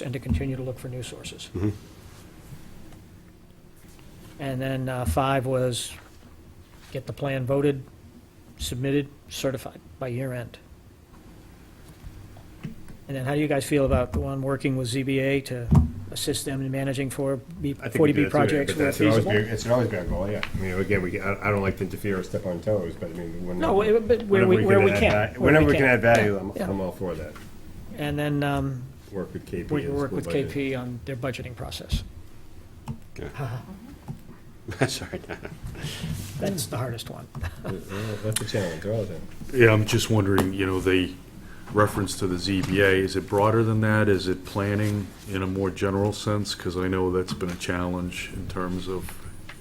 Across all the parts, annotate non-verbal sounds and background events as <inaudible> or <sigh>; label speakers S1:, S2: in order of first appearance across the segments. S1: and to continue to look for new sources. And then uh, five was get the plan voted, submitted, certified by year end. And then how do you guys feel about the one working with ZBA to assist them in managing for B-
S2: I think we do
S1: 40B
S2: that too,
S1: projects
S2: but
S1: where
S2: that should always
S1: feasible?
S2: be- It should always be our goal, yeah. I mean, again, we, I I don't like to interfere or step on toes, but I mean, when.
S1: No, where- but where we,
S2: whenever
S1: where we
S2: add
S1: can.
S2: va-
S1: where
S2: Whenever we can add value,
S1: Yeah,
S2: I'm,
S1: yeah.
S2: I'm all for that.
S1: And then um,
S2: Work with KP.
S1: we
S2: and
S1: can work
S2: school
S1: with
S2: budget.
S1: KP on their budgeting process.
S2: <laughs>
S3: Sorry.
S1: That's the hardest one.
S2: Well, That's a challenge, all of them.
S4: Yeah, I'm just wondering, you know, the reference to the ZBA, is it broader than that? Is it planning in a more general sense? Because I know that's been a challenge in terms of,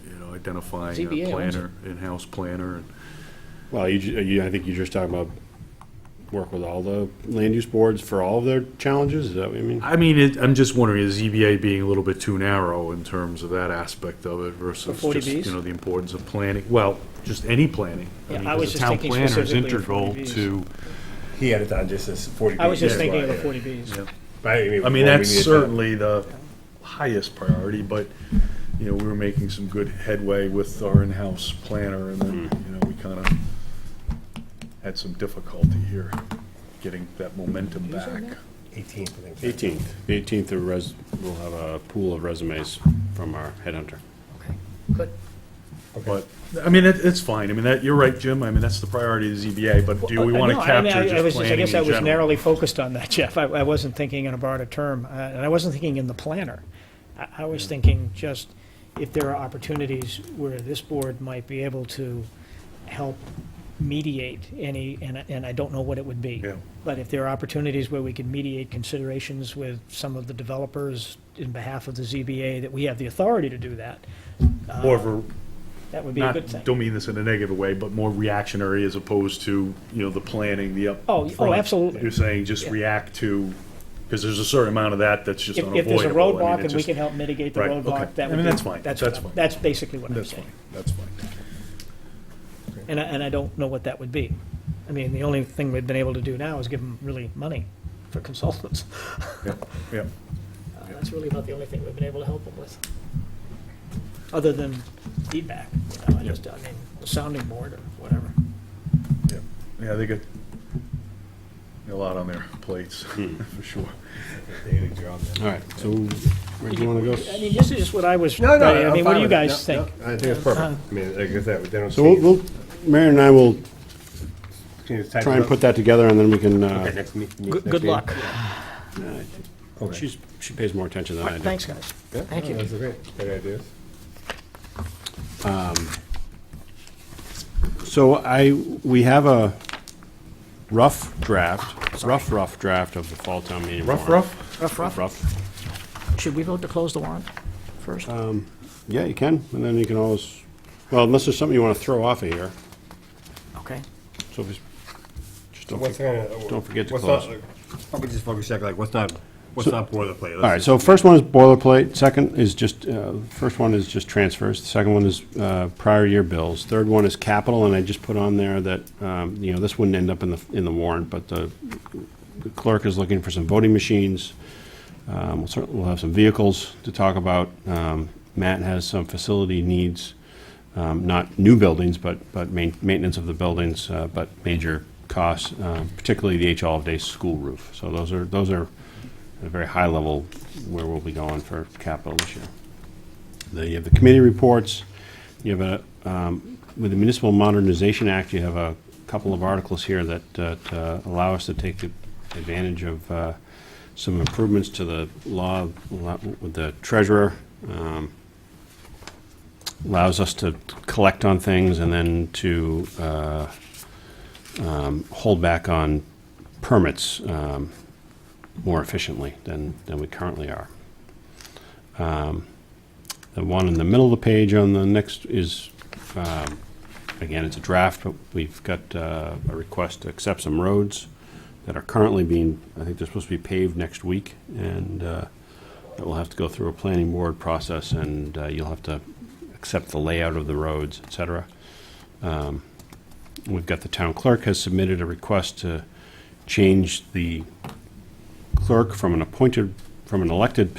S4: you know, identifying
S1: ZBA
S4: a
S1: owns
S4: planner, in-house planner. and-
S3: Well, you, ju- you, I think you're just talking about work with all the land use boards for all of their challenges, is that what you mean?
S4: I mean, it- I'm just wondering, is ZBA being a little bit too narrow in terms of that aspect of it versus
S1: For
S4: just,
S1: 40Bs?
S4: you know, the importance of planning? Well, just any planning.
S1: Yeah,
S4: mean,
S1: I
S4: 'cause
S1: was
S4: the
S1: just
S4: town
S1: thinking
S4: planner is
S1: specifically of
S4: integral
S1: 40Bs.
S4: to-
S2: He had it on just as forty.
S1: I was just
S2: pages,
S1: thinking of the
S2: right?
S1: 40Bs.
S2: But I mean.
S4: I mean,
S2: well, we
S4: that's
S2: need to-
S4: certainly the highest priority, but, you know, we were making some good headway with our in-house planner, and then,
S2: Mm.
S4: you know, we kind of had some difficulty here getting that momentum back.
S2: Eighteen, I <laughs> think.
S3: Eighteenth, the eighteenth of res, we'll have a pool of resumes from our headhunter.
S1: Okay, good.
S4: But, I mean, it, it's fine, I mean, that, you're right, Jim, I mean, that's the priority of the ZBA, but do we
S1: Well,
S4: want
S1: no,
S4: to
S1: I mean, I- I was
S4: capture just
S1: just-
S4: planning
S1: I
S4: in
S1: guess I was
S4: general?
S1: narrowly focused on that, <laughs> Jeff. I, I wasn't thinking in a broader term, uh, and I wasn't thinking in the planner. I, I was thinking just if there are opportunities where this board might be able to help mediate any, and, I- and I don't know what it would be.
S4: Yeah.
S1: But if there are opportunities where we can mediate considerations with some of the developers in behalf of the ZBA, that we have the authority to do that,
S4: More of a,
S1: that would be a good thing.
S4: not, don't mean this in a negative way, but more reactionary as opposed to, you know, the planning, the up.
S1: Oh, oh,
S4: front.
S1: absolutely.
S4: You're saying just
S1: Yeah.
S4: react to, because there's a certain amount of that that's just
S1: If,
S4: unavoidable.
S1: if there's a
S4: I mean,
S1: roadblock
S4: it
S1: and we
S4: just-
S1: can help mitigate the
S4: Right, okay.
S1: roadblock, that
S4: I
S1: would be.
S4: mean, that's fine. That's fine.
S1: That's basically what I'm
S4: That's fine,
S1: saying.
S4: that's fine.
S1: And I, and I don't know what that would be. I mean, the only thing we've been able to do now is give them really money for consultants. <laughs>
S4: Yeah,
S1: Uh, That's really about the only thing we've been able to help them with. Other than feedback, you know, I just, I mean, a sounding board or whatever.
S4: yeah. Yeah, they got a lot on their plates, <laughs> for sure.
S2: They had a job then.
S3: All right, so where do you wanna go?
S1: I mean, this is just what I was,
S2: No, no,
S1: I mean,
S2: I'm
S1: what do
S2: fine
S1: you
S2: with it.
S1: guys
S2: No, no,
S1: think?
S2: I think it's perfect. I mean, like I said, they don't.
S3: So we'll,
S2: change.
S3: we'll, Mary and I will
S2: Can you type
S3: try
S2: it
S3: and
S2: up?
S3: put that together and then we can, uh,
S2: Okay, next me- meet
S1: Good
S2: next
S1: good
S2: meeting?
S1: luck.
S3: uh,
S2: Okay.
S3: she's, she pays more attention than I do.
S1: Thanks, guys.
S2: Yeah,
S1: Thank
S2: no,
S1: you.
S2: That's great, great ideas.
S3: So I, we have a rough draft, rough, rough draft of the fall town meeting
S4: Rough,
S3: warrant.
S4: rough?
S1: Rough, rough.
S3: Rough,
S1: Should we vote to close the warrant first?
S3: yeah, you can, and then you can always, well, unless there's something you want to throw off of here,
S1: Okay.
S3: so if it's- just don't.
S2: What's
S3: forget-
S2: gonna?
S3: don't forget to
S2: what's
S3: close.
S2: not- Probably just focus check, like, what's not, what's not boilerplate?
S3: All right, so first one is boilerplate, second is just, uh, first one is just transfers, the second one is uh, prior year bills, third one is capital, and I just put on there that, um, you know, this wouldn't end up in the, in the warrant, but the the clerk is looking for some voting machines. Um, We'll certainly, we'll have some vehicles to talk about. Um, Matt has some facility needs, um, not new buildings, but, but main- maintenance of the buildings, uh, but major costs, uh, particularly the H. Olive Day school roof. So those are, those are at a very high level where we'll be going for capital this year. Then you have the committee reports. You have a, um, with the Municipal Modernization Act, you have a couple of articles here that uh, to allow us to take the advantage of uh, some improvements to the law law- with the treasurer. um, Allows us to collect on things and then to uh, um, hold back on permits um, more efficiently than, than we currently are. Um, The one in the middle of the page on the next is, um, again, it's a draft, but we've got uh, a request to accept some roads that are currently being, I think they're supposed to be paved next week, and uh, that will have to go through a planning board process, and uh, you'll have to accept the layout of the roads, et cetera. Um, We've got the town clerk has submitted a request to change the clerk from an appointed from an elected